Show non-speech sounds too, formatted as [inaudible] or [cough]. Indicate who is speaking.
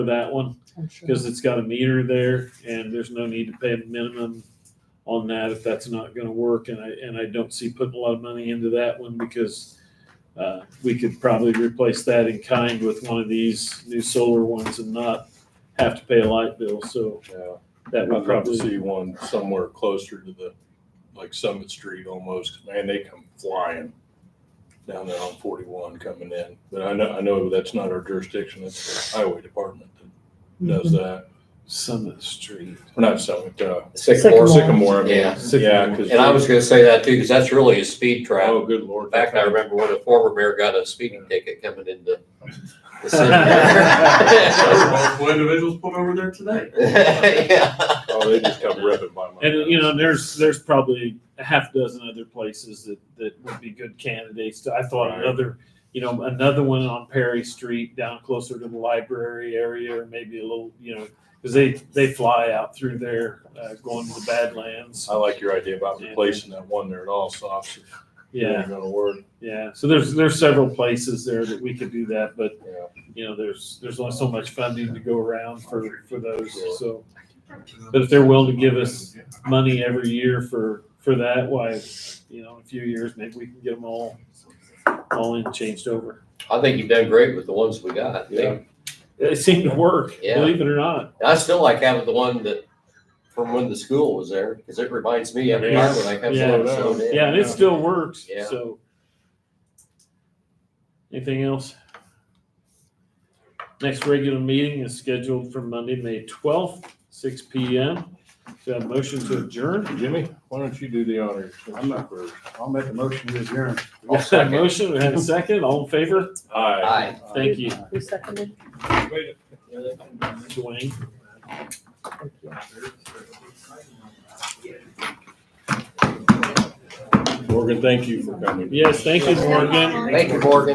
Speaker 1: for that one
Speaker 2: I'm sure.
Speaker 1: because it's got a meter there and there's no need to pay a minimum on that if that's not going to work. And I, and I don't see putting a lot of money into that one because uh, we could probably replace that in kind with one of these new solar ones and not have to pay a light bill. So
Speaker 3: Yeah,
Speaker 1: that
Speaker 3: I'd
Speaker 1: would
Speaker 3: love to
Speaker 1: probably.
Speaker 3: see one somewhere closer to the, like Summit Street almost, man, they come flying down there on forty-one coming in, but I know, I know that's not our jurisdiction, it's the highway department that does
Speaker 4: Mm-hmm.
Speaker 3: that,
Speaker 1: Summit Street.
Speaker 3: or not Summit, uh,
Speaker 2: Sycamore.
Speaker 3: Sycamore, Sycamore, I mean,
Speaker 4: Yeah.
Speaker 3: yeah, cause.
Speaker 4: And I was gonna say that too, because that's really a speed trap.
Speaker 3: Oh, good lord.
Speaker 4: In fact, I remember when a former mayor got a speeding ticket coming into the
Speaker 3: [laughs]
Speaker 4: [laughs]
Speaker 1: [laughs]
Speaker 4: city.
Speaker 5: Multiple individuals pulled over there today.
Speaker 4: [laughs] Yeah.
Speaker 3: Oh, they just come ripping by my.
Speaker 1: And you know, there's there's probably a half dozen other places that that would be good candidates. I thought
Speaker 3: Right.
Speaker 1: another, you know, another one on Perry Street down closer to the library area, or maybe a little, you know, because they they fly out through there, uh, going to the Badlands.
Speaker 3: I like your idea about replacing that one there at all, so obviously,
Speaker 1: Yeah,
Speaker 3: it's gonna work,
Speaker 1: yeah. So there's there's several places there that we could do that, but
Speaker 3: yeah.
Speaker 1: you know, there's there's only so much funding to go around for for those. So, but if they're willing to give us money every year for, for that, why, you know, in a few years, maybe we can get them all, all in, changed over.
Speaker 4: I think you've done great with the ones we got. I think-
Speaker 1: It seemed to work,
Speaker 4: Yeah.
Speaker 1: believe it or not.
Speaker 4: I still like having the one that, from when the school was there, because it reminds me every time when I come
Speaker 1: Yeah.
Speaker 4: slow down.
Speaker 1: Yeah, and it still works,
Speaker 4: Yeah.
Speaker 1: so. Anything else? Next regular meeting is scheduled for Monday, May twelfth, six P M. Do I have a motion to adjourn?
Speaker 3: Jimmy, why don't you do the honors?
Speaker 6: I'm not- I'll make a motion to adjourn.
Speaker 1: We have [laughs] a motion, we have a second, all in favor?
Speaker 3: Aye.
Speaker 4: Aye.
Speaker 1: Thank you,
Speaker 2: Who seconded?
Speaker 1: Dwayne.
Speaker 3: Morgan, thank you for coming.
Speaker 1: Yes, thank you, Morgan.
Speaker 4: Thank you, Morgan.